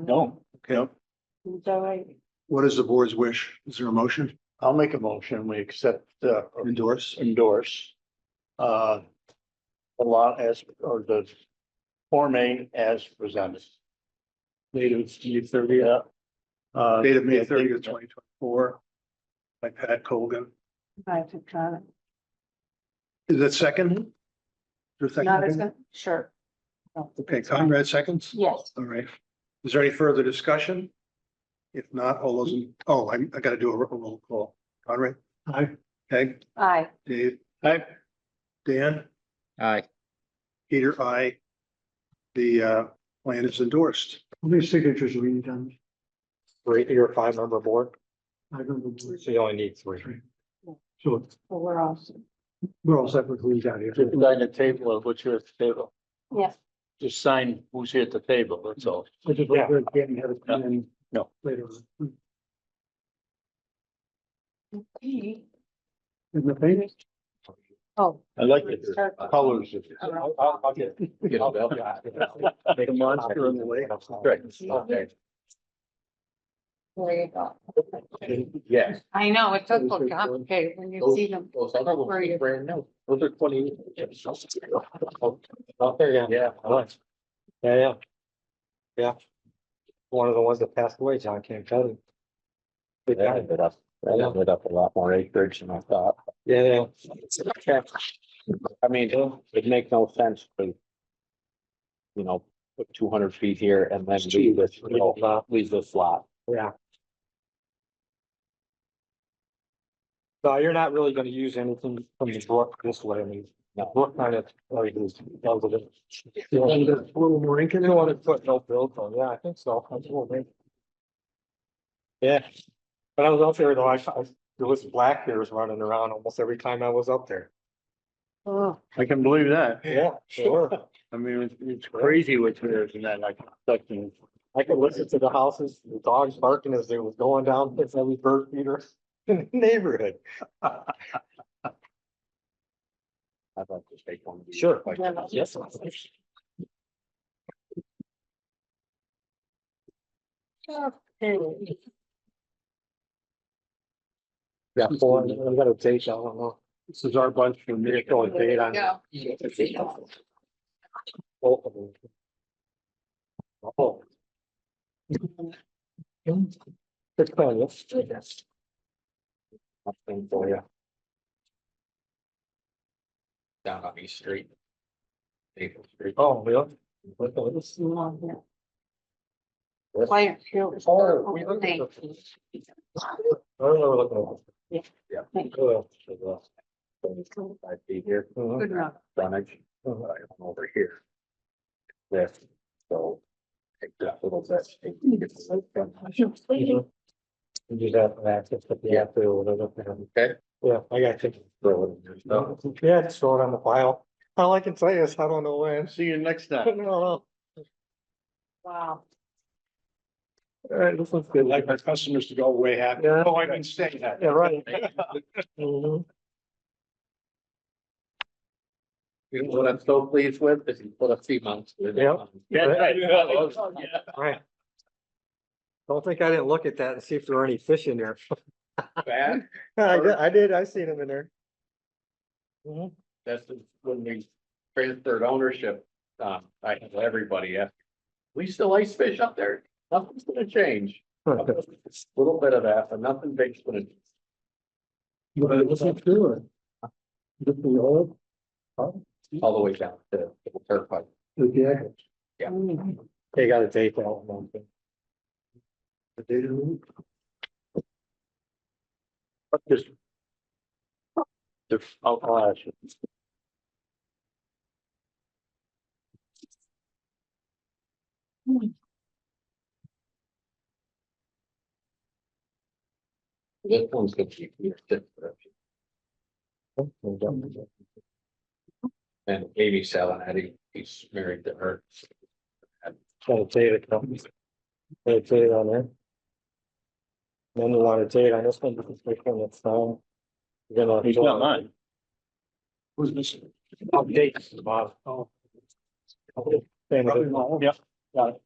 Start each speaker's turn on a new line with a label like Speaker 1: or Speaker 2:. Speaker 1: No.
Speaker 2: Okay,
Speaker 3: So I,
Speaker 2: what is the board's wish? Is there a motion
Speaker 1: I'll make a motion. We accept, uh, or
Speaker 2: endorse?
Speaker 1: endorse. Uh. The law as, or the Form A as presented. Native May thirty, uh. uh,
Speaker 2: Date of May
Speaker 1: yeah,
Speaker 2: thirtieth, twenty twenty-four. By Pat Colgan.
Speaker 3: I took kind of,
Speaker 2: Is that second? Is there a
Speaker 3: not as
Speaker 2: second?
Speaker 3: good, sure.
Speaker 2: Okay, Conrad seconds?
Speaker 3: Yes.
Speaker 2: All right. Is there any further discussion? If not, all those, in- oh, I, I gotta do a ro- a roll call. Conrad,
Speaker 1: Aye.
Speaker 2: Peg,
Speaker 3: Aye.
Speaker 2: Dave,
Speaker 1: Aye.
Speaker 2: Dan,
Speaker 4: Aye.
Speaker 2: Peter, I. The, uh, plan is endorsed.
Speaker 5: How many signatures are needed on?
Speaker 4: Three, you're a five member board,
Speaker 5: I don't know.
Speaker 4: so you only need three.
Speaker 5: So
Speaker 3: Well, we're awesome.
Speaker 5: we're all set with who's out here.
Speaker 1: Just sign the table of what's here at the table.
Speaker 3: Yes.
Speaker 1: Just sign who's here at the table, that's all.
Speaker 5: I just like to get and have it come in
Speaker 1: No.
Speaker 5: Later on.
Speaker 3: Oh.
Speaker 5: In the papers.
Speaker 1: I like it. Colors.
Speaker 3: I'll-
Speaker 4: The
Speaker 2: monster in the way.
Speaker 4: Right.
Speaker 3: There you go.
Speaker 4: Yes.
Speaker 3: I know, it does look complicated when you see them.
Speaker 4: Those other ones
Speaker 3: Where you-
Speaker 4: are brand new. Those are twenty. Out there, yeah. Yeah, I like. Yeah, yeah. Yeah. One of the ones that passed away, John King Cuddy. Good
Speaker 6: That
Speaker 4: guy.
Speaker 6: ended up, that
Speaker 4: Yeah.
Speaker 6: ended up a lot more acreage than I thought.
Speaker 4: Yeah, yeah.
Speaker 6: I mean, it makes no sense to. You know, put two hundred feet here and then leave this, you know, leave this lot.
Speaker 4: Yeah. No, you're not really gonna use anything from the book this way, I mean, the book kind of, like, is. You
Speaker 5: And there's
Speaker 4: don't
Speaker 5: a little more ink in it.
Speaker 4: want to put no build on, yeah, I think so. I think we'll make- Yeah, but I was up there though, I, I- there was black bears running around almost every time I was up there.
Speaker 1: I can believe that.
Speaker 4: Yeah, sure.
Speaker 1: I mean, it's- it's crazy what's there and that, like, like, you
Speaker 4: I could listen to the houses, the dogs barking as they was going down, it's every bird feeder in the neighborhood.
Speaker 6: I'd like to take one of these.
Speaker 3: Oh,
Speaker 4: Sure.
Speaker 6: Like,
Speaker 4: Yes. Yeah, four, I'm gonna take, I don't know.
Speaker 1: This is our bunch for me.
Speaker 4: There you go. Both of them. Oh. Good plan, yes.
Speaker 6: Nothing for you. Down on East Street. Maple Street.
Speaker 4: Oh, yeah.
Speaker 3: Player field.
Speaker 4: Oh, we looked at the- I don't know what looking
Speaker 6: Yeah.
Speaker 3: Thank
Speaker 6: Uh, so the- I'd be here.
Speaker 3: Good enough.
Speaker 6: frontage, uh, over here. This, so. Take that little bit. take it.
Speaker 4: at. And do that for access, but yeah, they'll, they'll,
Speaker 6: Okay.
Speaker 4: yeah, I got it.
Speaker 6: Throw it in there, so.
Speaker 4: Yeah, just throw it on the file. All I can say is I don't know when.
Speaker 1: See you next time.
Speaker 4: No, no. All
Speaker 3: Wow.
Speaker 4: right, this one's good.
Speaker 2: Like our customers to go away happy.
Speaker 4: Yeah.
Speaker 2: Oh, I can say that.
Speaker 4: Yeah, right. Mhm.
Speaker 6: You know what I'm so pleased with is you put a few months. in it.
Speaker 4: Yeah.
Speaker 1: That's right.
Speaker 4: Right. Don't think I didn't look at that and see if there were any fish in there.
Speaker 6: Bad,
Speaker 4: I did, I did, I seen them in there. Mhm.
Speaker 6: that's when we transferred ownership, um, I had everybody ask. We still ice fish up there, nothing's gonna change. A Little bit of that, but nothing big's gonna.
Speaker 5: But what's it doing? Just the oil,
Speaker 6: All the way down to the turf pipe.
Speaker 5: the jacket.
Speaker 4: They got a date out. one thing.
Speaker 5: The data room.
Speaker 1: Just. oh, They're- I'll, I'll ask you.
Speaker 6: This one's gonna be your fifth version. And Amy Salonetti, he's married to her.
Speaker 4: Got a date out. Got a date on there. Then you want a date on this one, because this one that's um, down. You're gonna-
Speaker 1: He's not mine.
Speaker 2: Who's missing?
Speaker 4: Updates, Bob. Oh. Same as-
Speaker 2: Probably not.
Speaker 1: Yeah, got it.